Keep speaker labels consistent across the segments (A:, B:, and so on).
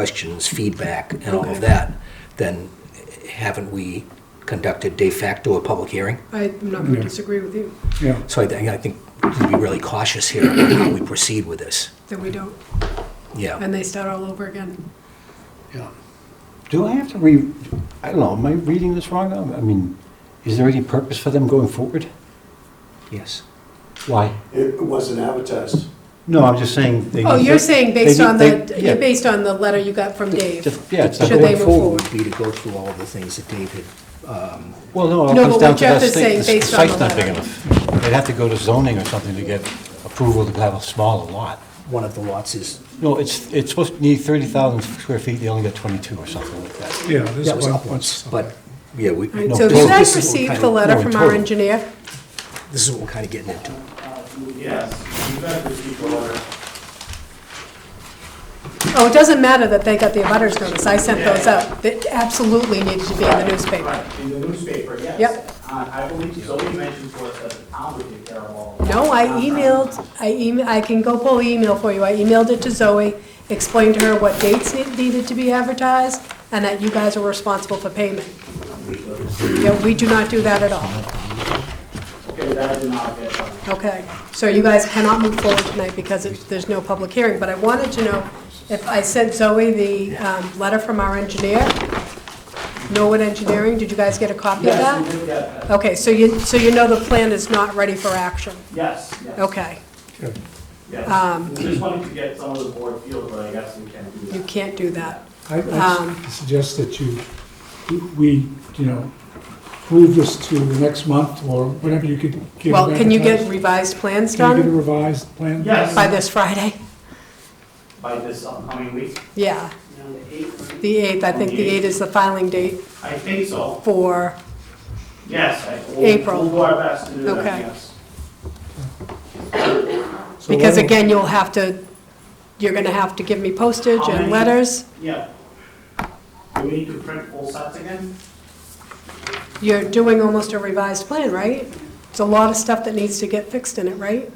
A: questions, feedback, and all of that, then haven't we conducted de facto a public hearing?
B: I'm not going
C: Yeah.
B: to disagree with you,
C: Yeah,
A: So I think, I think we need to be really cautious here on how we proceed with this.
B: that we don't,
A: Yeah.
B: and they start all over again.
C: yeah.
D: Do I have to re, I don't know, am I reading this wrong? I mean, is there any purpose for them going forward?
A: Yes.
D: Why?
E: It wasn't advertised.
D: No, I'm just saying. they-
B: Oh, you're saying based
D: they-
B: on the,
D: they- yeah.
B: you're based on the letter you got from Dave?
D: Just- Yeah, it's not
B: Should they
D: going
B: move
D: forward.
A: Would
B: forward?
A: be to go through all of the things that David, um,
D: Well, no, it
B: No,
D: comes
B: but
D: down
B: what
D: to
B: Jeff
D: that
B: is saying
D: thing, the
B: based on
D: site's
B: the
D: not big
B: letter.
D: enough. They'd have to go to zoning or something to get approval to have a smaller lot.
A: one of the lots is,
D: No, it's, it's supposed to need 30,000 square feet, they only got 22 or something like that.
C: Yeah, this
A: that was
C: one-
A: upwards,
C: what's-
A: but, yeah, we.
B: All right,
D: No,
B: so have
D: total.
B: you guys
A: This is what we're
B: received
A: kind
B: the
A: of-
B: letter
D: No,
B: from our
D: total.
B: engineer?
A: This is what we're kind of getting into.
F: Yes, you guys received the letter.
B: Oh, it doesn't matter that they got the abutters notice, I sent those out. That absolutely needed to be in the newspaper.
F: Right, In the newspaper, yes.
B: Yep.
F: Uh, I believe Zoe mentioned to us that the town would take care of all of that.
B: No, I emailed, I email, I can go pull the email for you. I emailed it to Zoe, explained to her what dates ne- needed to be advertised, and that you guys are responsible for payment. Yeah, we do not do that at all.
F: Okay, that did not get done.
B: Okay, so you guys cannot move forward tonight because it- there's no public hearing, but I wanted to know if I sent Zoe the um, letter from our engineer, Norwood Engineering, did you guys get a copy of
F: Yes,
B: that?
F: you did get that.
B: Okay, so you, so you know the plan is not ready for action?
F: Yes, yes,
B: Okay, um,
F: yes. We just wanted to get some of the board feel, but I guess we can do
B: you
F: that.
B: can't do that.
C: I,
B: Um,
C: I suggest that you, we, you know, move this to the next month or whenever you could get. it
B: Well, can you get
C: advertised.
B: revised plans
C: Can you get a
B: done
C: revised plan?
F: Yes.
B: by this Friday?
F: By this upcoming week?
B: Yeah,
F: The eighth?
B: the 8th, I think the 8th is the filing date
F: I think so,
B: for,
F: yes. I- we'll-
B: April.
F: We'll do our best to do that,
B: Okay.
F: yes.
C: So why
B: because
C: don't-
B: again, you'll have to, you're going to have to give me postage
F: How
B: and
F: many?
B: letters.
F: Yeah. Do we need to print full sets again?
B: You're doing almost a revised plan, right? It's a lot of stuff that needs to get fixed in it, right?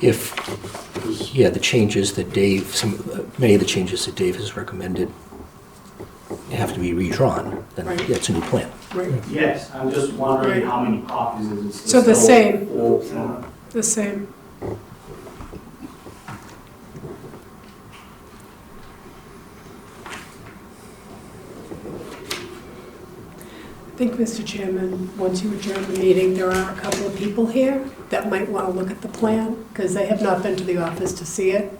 A: If, yeah, the changes that Dave, some, uh, many of the changes that Dave has recommended have to be redrawn, then
B: Right.
A: that's a new plan.
B: Right.
F: Yes, I'm just wondering how many copies is it?
B: So the same.
F: Old form.
B: The same. I think, Mr. Chairman, once you adjourn the meeting, there are a couple of people here that might want to look at the plan because they have not been to the office to see it.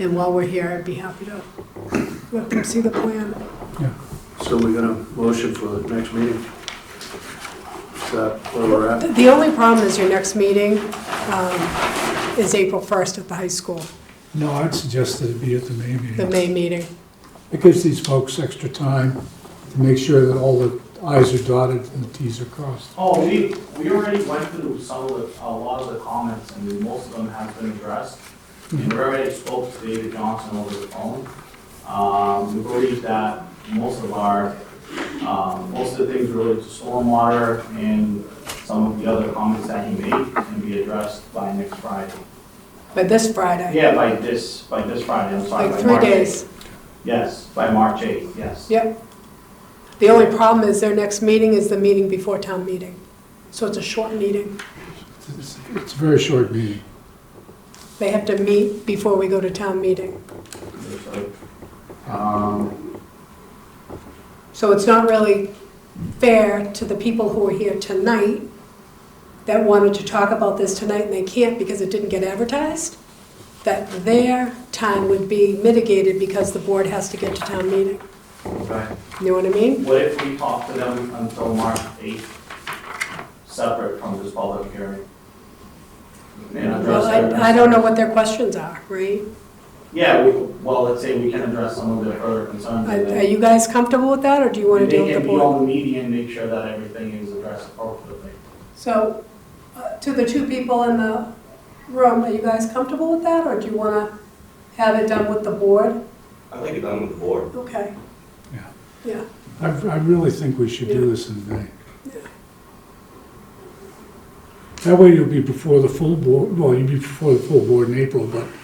B: And while we're here, I'd be happy to let them see the plan.
E: So we're gonna motion for the next meeting? Is that where we're at?
B: The only problem is your next meeting um, is April 1st at the high school,
C: No, I'd suggest that it be at the May
B: the
C: meeting.
B: May meeting.
C: It gives these folks extra time to make sure that all the i's are dotted and the t's are crossed.
F: Oh, we, we already went through some of the, a lot of the comments, and most of them have been addressed. And we already spoke to David Johnson over the phone. Um, we believe that most of our, um, most of the things related to stormwater and some of the other comments that he made can be addressed by next Friday.
B: But this Friday,
F: Yeah, by this, by this Friday, I'm sorry,
B: like
F: by
B: three
F: March
B: days.
F: 8th. Yes, by March 8th, yes.
B: Yep. The only problem is their next meeting is the meeting before town meeting. So it's a short meeting.
C: It's it's a very short meeting.
B: They have to meet before we go to town meeting.
F: Um,
B: So it's not really fair to the people who are here tonight that wanted to talk about this tonight and they can't because it didn't get advertised, that their time would be mitigated because the board has to get to town meeting.
F: okay.
B: You know what I mean?
F: What if we talk to them until March 8th, separate from this public hearing? And address
B: Well,
F: their
B: I, I don't know what their questions are, right?
F: Yeah, we- well, let's say we can address some of their further concerns.
B: Are
F: and
B: are
F: then
B: you guys comfortable with that or do you want to deal with the
F: They can be
B: board?
F: on the media and make sure that everything is addressed appropriately.
B: So, uh, to the two people in the room, are you guys comfortable with that or do you want to have it done with the board?
G: I think it's done with the board.
B: Okay,
C: Yeah.
B: yeah.
C: I, I really think we should
B: Yeah.
C: do this in May. That way you'll be before the full board, well, you'll be before the full board in April, but